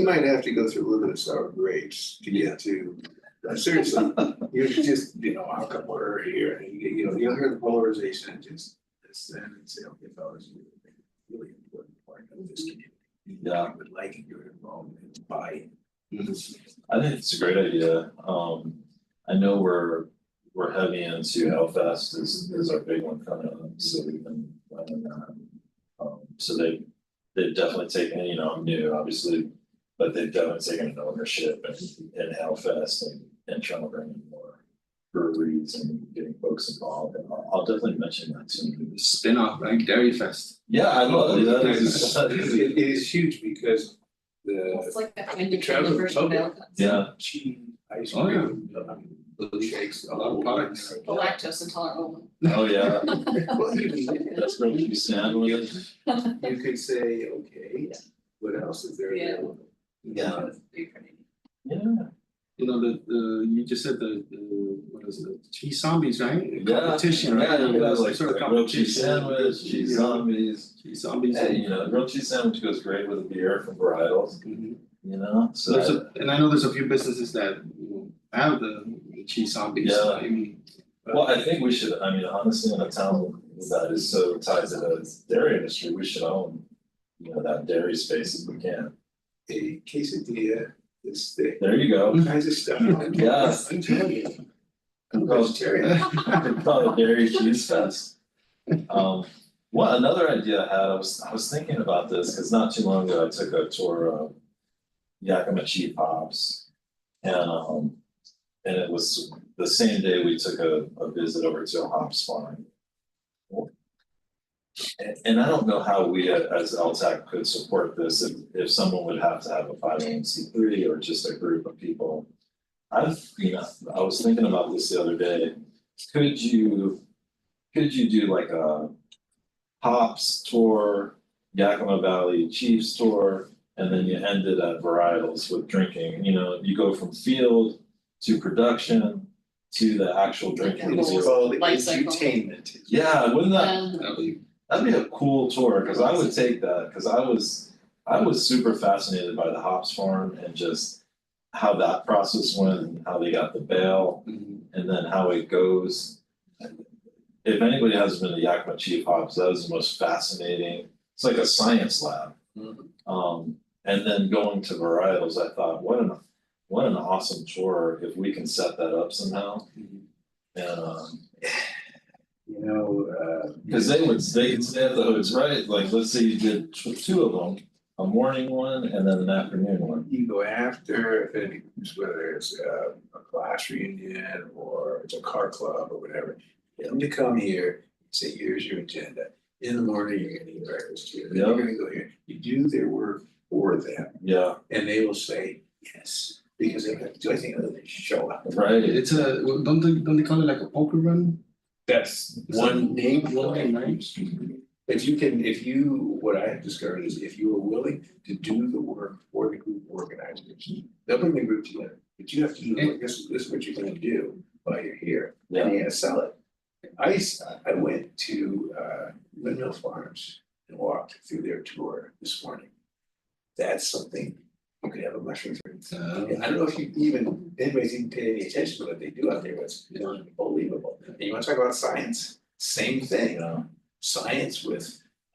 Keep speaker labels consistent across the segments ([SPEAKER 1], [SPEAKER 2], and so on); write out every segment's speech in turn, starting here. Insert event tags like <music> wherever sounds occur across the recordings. [SPEAKER 1] You might have to go through luminous hour grades to get to, uh, seriously, you just, you know, how come we're here, and you, you know, you'll hear the polarization, and just. This, and it's, okay, fellas, you really important part of this community.
[SPEAKER 2] Yeah.
[SPEAKER 1] I Would like your involvement, buy.
[SPEAKER 2] I think it's a great idea, um, I know we're, we're heavy into Hellfest is, is our big one coming up, so we've been planning that. Um, so they, they've definitely taken, you know, I'm new, obviously, but they've definitely taken an ownership in, in Hellfest and, and trying to bring in more breweries and getting folks involved, and I'll, I'll definitely mention that soon.
[SPEAKER 3] spin-off, like Dairy Fest.
[SPEAKER 2] Yeah, I love it, that is, that is a-
[SPEAKER 1] It it is huge because the
[SPEAKER 4] It's like that
[SPEAKER 1] the
[SPEAKER 4] Wendy's
[SPEAKER 1] travel
[SPEAKER 4] version of
[SPEAKER 1] public.
[SPEAKER 4] Belgians.
[SPEAKER 2] yeah,
[SPEAKER 1] cheese, ice
[SPEAKER 3] Oh, yeah.
[SPEAKER 1] cream, um, little shakes, a lot of products.
[SPEAKER 4] The lactose intolerant
[SPEAKER 2] oh, yeah,
[SPEAKER 1] Well, you-
[SPEAKER 2] that's where we stand with it.
[SPEAKER 4] woman.
[SPEAKER 1] You could say,
[SPEAKER 4] <laughs>
[SPEAKER 1] okay, what else is there
[SPEAKER 4] Yeah.
[SPEAKER 1] available?
[SPEAKER 2] Yeah.
[SPEAKER 4] It's pretty pretty.
[SPEAKER 2] Yeah.
[SPEAKER 3] You know, the, the, you just said the, the, what is it, cheese zombies, right?
[SPEAKER 2] Yeah,
[SPEAKER 3] Competition, right?
[SPEAKER 2] Yeah,
[SPEAKER 3] It
[SPEAKER 2] it
[SPEAKER 3] was
[SPEAKER 2] was like
[SPEAKER 3] sort of
[SPEAKER 2] grilled cheese
[SPEAKER 3] competition.
[SPEAKER 2] sandwich, cheese
[SPEAKER 3] Yeah.
[SPEAKER 2] zombies.
[SPEAKER 3] Cheese zombies.
[SPEAKER 2] Hey, you know, grilled cheese sandwich goes great with a beer from Varietals,
[SPEAKER 1] Mhm.
[SPEAKER 2] you know, so.
[SPEAKER 3] There's a, and I know there's a few businesses that you know, have the the cheese zombies,
[SPEAKER 2] Yeah.
[SPEAKER 3] I mean. but-
[SPEAKER 2] Well, I think we should, I mean, honestly, in a town that is so tied to the dairy industry, we should own, you know, that dairy space if we can.
[SPEAKER 1] A quesadilla, this thing,
[SPEAKER 2] There you go.
[SPEAKER 1] all kinds of stuff.
[SPEAKER 2] Yeah.
[SPEAKER 1] I'm telling you. I'm
[SPEAKER 2] Well,
[SPEAKER 1] vegetarian.
[SPEAKER 2] <laughs> Probably dairy cheese fest. Um, well, another idea I had, I was, I was thinking about this, cause not too long ago, I took a tour of Yakima Cheap Hops. And, um, and it was the same day we took a, a visit over to a hops farm. And, and I don't know how we a- as LTAC could support this, if, if someone would have to have a five A C three or just a group of people. I've, you know, I was thinking about this the other day, could you, could you do like a hops tour, Yakima Valley Chiefs tour, and then you end it at varietals with drinking, you know, you go from field to production to the actual drinking.
[SPEAKER 4] Like a
[SPEAKER 1] It's
[SPEAKER 4] whole-
[SPEAKER 2] tour.
[SPEAKER 1] called
[SPEAKER 4] life cycle.
[SPEAKER 1] edutainment.
[SPEAKER 2] Yeah, wouldn't that,
[SPEAKER 4] Um,
[SPEAKER 3] That would be-
[SPEAKER 2] that'd be a cool tour, cause I would take that, cause I was, I was super fascinated by the hops farm and just how that process went, and how they got the bale
[SPEAKER 3] mhm.
[SPEAKER 2] and then how it goes. If anybody has been to Yakima Chief Hops, that was the most fascinating, it's like a science lab. Um, and then going to varietals, I thought, what an, what an awesome tour if we can set that up somehow.
[SPEAKER 1] Mhm.
[SPEAKER 2] And, um,
[SPEAKER 1] You know, uh.
[SPEAKER 2] cause they would, they could stay at the hoods, right, like, let's say you did tw- two of them, a morning one and then an afternoon one.
[SPEAKER 1] You go after, if it is, whether it's uh, a class reunion or it's a car club or whatever. Get them to come here, say, here's your agenda. In the morning, you're gonna eat breakfast here, then you're
[SPEAKER 2] Yeah.
[SPEAKER 1] gonna go here. You do their work for them
[SPEAKER 2] Yeah,
[SPEAKER 1] and they will say yes, because they have to do anything other than show up.
[SPEAKER 2] right,
[SPEAKER 3] <laughs> It's a, well, don't they, don't they call it like a poker run?
[SPEAKER 1] That's
[SPEAKER 3] Is
[SPEAKER 1] one
[SPEAKER 3] that-
[SPEAKER 1] name,
[SPEAKER 3] One name, right?
[SPEAKER 1] If you can, if you, what I have discovered is if you are willing to do the work for the group organizers, they'll bring the group together, but you have to do, the work. this, this is what you're gonna do while you're here, and
[SPEAKER 2] yeah,
[SPEAKER 1] you gotta sell it. I, s- I went to, uh, Windmill Farms and walked through their tour this morning. That's something, you could have a mushroom for
[SPEAKER 3] Uh,
[SPEAKER 1] I don't know if you even, anybody's even paid any attention to what they do out there, but it's unbelievable. And you wanna talk about science, same thing, uh,
[SPEAKER 2] yeah,
[SPEAKER 1] science with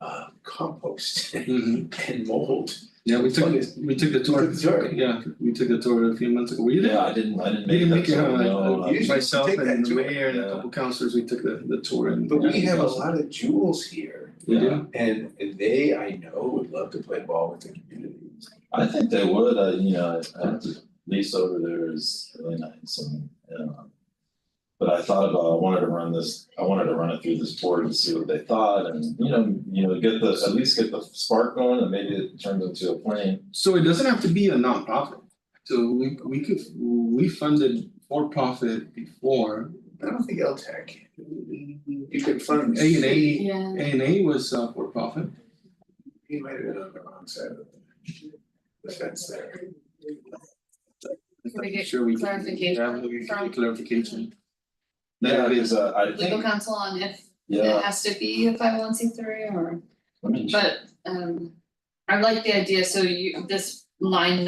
[SPEAKER 1] um compost <laughs>
[SPEAKER 3] mhm.
[SPEAKER 1] and mold.
[SPEAKER 3] Yeah, we took,
[SPEAKER 1] Fungus.
[SPEAKER 3] we took the
[SPEAKER 1] You
[SPEAKER 3] tour,
[SPEAKER 1] took the tour.
[SPEAKER 3] yeah, we took the tour a few months ago, were you there?
[SPEAKER 2] yeah, I didn't, I didn't
[SPEAKER 3] We
[SPEAKER 2] make that.
[SPEAKER 3] didn't
[SPEAKER 2] so
[SPEAKER 3] make it, uh,
[SPEAKER 2] no,
[SPEAKER 3] uh,
[SPEAKER 2] I'm-
[SPEAKER 1] You should
[SPEAKER 3] myself
[SPEAKER 1] take that
[SPEAKER 3] and the
[SPEAKER 1] tour.
[SPEAKER 3] mayor and a
[SPEAKER 2] Yeah.
[SPEAKER 3] couple councillors, we took the, the tour and.
[SPEAKER 1] But we have a lot of jewels here
[SPEAKER 3] We do.
[SPEAKER 1] and they, I know, would love to play ball with the community.
[SPEAKER 2] I think they would, uh, you know, uh, Lisa over there is really nice and, um. But I thought about, I wanted to run this, I wanted to run it through this board and see what they thought and, you know, you know, get the, at least get the spark going and maybe it turns into a plan.
[SPEAKER 3] So it doesn't have to be a nonprofit. So we we could, we funded for profit before.
[SPEAKER 1] I don't think LTAC, you could fund.
[SPEAKER 3] A and A,
[SPEAKER 4] Yeah,
[SPEAKER 3] A and A was uh for profit.
[SPEAKER 1] He might have been on the wrong side of the- the fence there.
[SPEAKER 4] Can we get
[SPEAKER 3] Sure we.
[SPEAKER 4] clarification
[SPEAKER 3] Yeah, we could
[SPEAKER 4] from-
[SPEAKER 3] get clarification.
[SPEAKER 2] Yeah,
[SPEAKER 3] That
[SPEAKER 2] because
[SPEAKER 3] is,
[SPEAKER 2] uh, I
[SPEAKER 4] legal
[SPEAKER 2] think,
[SPEAKER 4] counsel on if
[SPEAKER 2] yeah,
[SPEAKER 4] it has to be a five oh one C three or,
[SPEAKER 2] let me check.
[SPEAKER 4] but, um, I like the idea, so you, this line